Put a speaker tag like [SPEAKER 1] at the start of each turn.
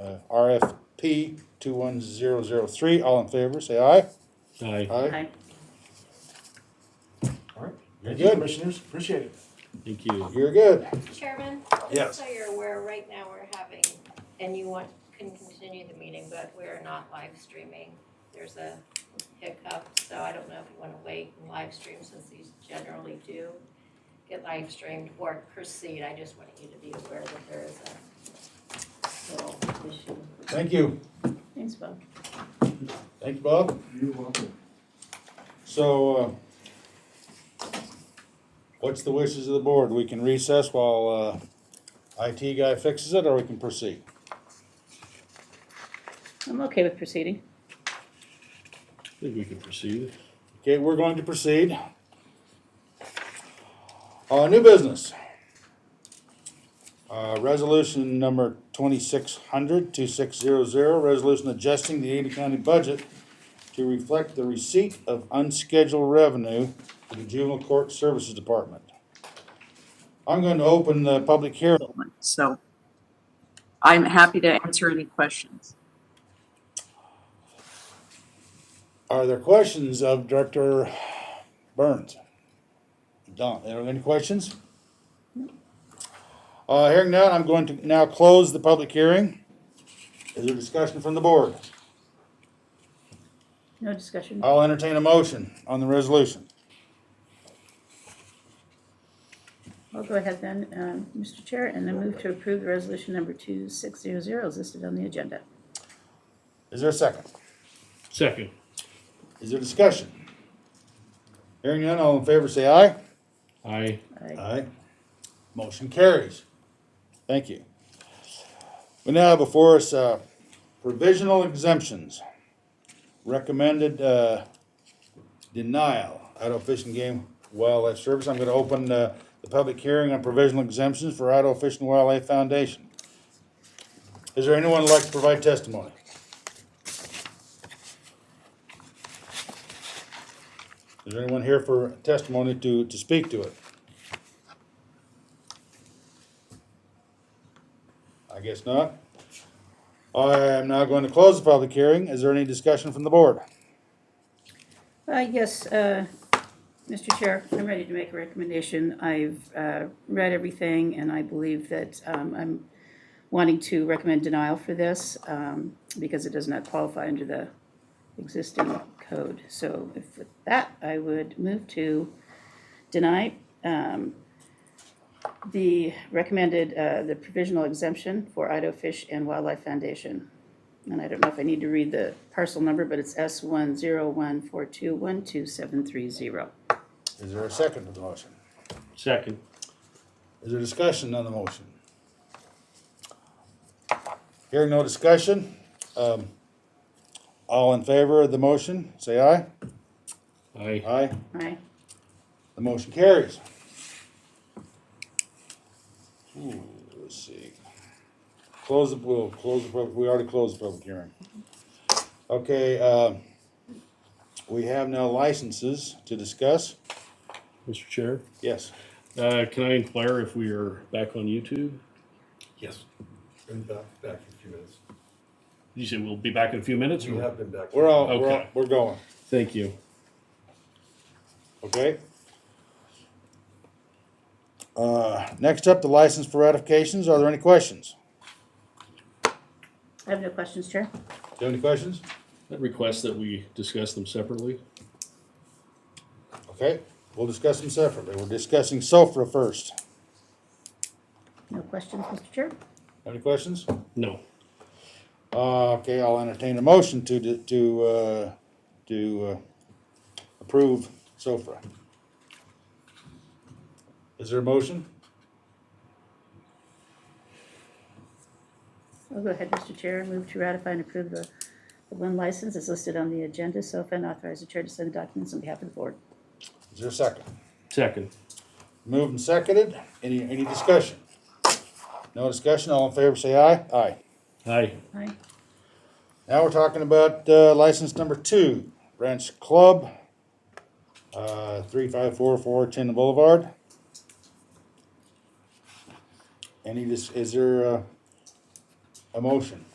[SPEAKER 1] uh, RFP two one zero zero three. All in favor, say aye.
[SPEAKER 2] Aye.
[SPEAKER 3] Aye.
[SPEAKER 4] All right. Thank
[SPEAKER 1] Good.
[SPEAKER 4] you, commissioners. Appreciate it.
[SPEAKER 2] Thank you.
[SPEAKER 1] You're good.
[SPEAKER 5] Chairman?
[SPEAKER 1] Yes.
[SPEAKER 5] Just so you're aware, right now we're having, and you want, can continue the meeting, but we're not live streaming. There's a hiccup, so I don't know if you wanna wait and live stream since these generally do get live streamed or proceed. I just wanted you to be aware that there is a little issue.
[SPEAKER 1] Thank you.
[SPEAKER 3] Thanks, Bob.
[SPEAKER 1] Thank you, Bob.
[SPEAKER 4] You're welcome.
[SPEAKER 1] So, uh, what's the wishes of the board? We can recess while, uh, IT guy fixes it, or we can proceed?
[SPEAKER 3] I'm okay with proceeding.
[SPEAKER 2] I think we can proceed.
[SPEAKER 1] Okay, we're going to proceed. Uh, new business. Uh, resolution number 2600-2600. resolution adjusting the Ada County budget to reflect the receipt of unscheduled revenue to the Juvenile Court Services Department. I'm going to open the public hearing.
[SPEAKER 6] one. So I'm happy to answer any questions.
[SPEAKER 1] Are there questions of Director Burns? Don, are there any questions? Uh, hearing none, I'm going to now close the public hearing. Is there discussion from the board?
[SPEAKER 3] No discussion.
[SPEAKER 6] Uh,
[SPEAKER 1] I'll entertain a motion on the resolution.
[SPEAKER 3] I'll go ahead then, um, Mr. Chair, and then move to approve the resolution number 2600 as listed on the agenda.
[SPEAKER 1] Is there a second?
[SPEAKER 2] Second.
[SPEAKER 1] Is there discussion? Hearing none, all in favor say aye.
[SPEAKER 2] Aye.
[SPEAKER 3] Aye.
[SPEAKER 1] Aye. Motion carries. Thank you. We now have before us uh, provisional exemptions. Recommended uh, denial Idaho Fish and Game Wildlife Service. I'm going to open uh, the public hearing on provisional exemptions for Idaho Fish and Wildlife Foundation. Is there anyone who'd like to provide testimony? Is there anyone here for testimony to, to speak to it? I guess not. I am now going to close the public hearing. Is there any discussion from the board?
[SPEAKER 3] Uh, Yes, uh, Mr. Chair, I'm ready to make a recommendation. I've uh, read everything, and I believe that um, I'm wanting to recommend denial for this um, because it does not qualify under the existing code. So if with that, I would move to deny um, the recommended, uh, the provisional exemption for Idaho Fish and Wildlife Foundation. And I don't know if I need to read the parcel number, but it's S one zero one four two one two seven three zero.
[SPEAKER 1] Is there a second to the motion?
[SPEAKER 2] Second.
[SPEAKER 1] Is there discussion on the motion? Hearing no discussion, um, all in favor of the motion, say aye.
[SPEAKER 2] Aye.
[SPEAKER 1] Aye.
[SPEAKER 3] Aye.
[SPEAKER 1] The motion carries. Ooh, Hmm, let's see. Close the, we'll close the, pub- we already closed the public hearing. Okay, uh, we have now licenses to discuss.
[SPEAKER 2] Mr. Chair,
[SPEAKER 1] Yes,
[SPEAKER 2] uh, can I inquire if we are back on YouTube?
[SPEAKER 4] Yes. Been back, back in a few minutes.
[SPEAKER 2] You said we'll be back in a few minutes?
[SPEAKER 4] We have been back.
[SPEAKER 1] we're all, we're, all-
[SPEAKER 2] Okay.
[SPEAKER 1] we're going,
[SPEAKER 2] Thank you.
[SPEAKER 1] okay? Uh, next up, the license for ratifications. Are there any questions?
[SPEAKER 3] I have no questions, Chair.
[SPEAKER 1] Do you have any questions?
[SPEAKER 2] That request that we discuss them separately?
[SPEAKER 1] Okay, we'll discuss them separately. We're discussing SOFRA first.
[SPEAKER 3] No questions, Mr. Chair?
[SPEAKER 1] Have Any questions?
[SPEAKER 2] No.
[SPEAKER 1] Uh, okay, I'll entertain a motion to, to, uh, to, uh, approve SOFRA. Is there a motion?
[SPEAKER 3] I'll go ahead, Mr. Chair, and move to ratify and approve the, the one license as listed on the agenda. So if and authorize the chair to send the documents on behalf of the board.
[SPEAKER 1] Is there a second?
[SPEAKER 2] Second.
[SPEAKER 1] Moved and seconded. Any, any discussion? No discussion? All in favor, say aye. Aye.
[SPEAKER 2] Aye.
[SPEAKER 3] Aye.
[SPEAKER 1] Now we're talking about, uh, license number two, Ranch Club, uh, three five four four Chin Boulevard. Any, dis- is there, uh, a motion?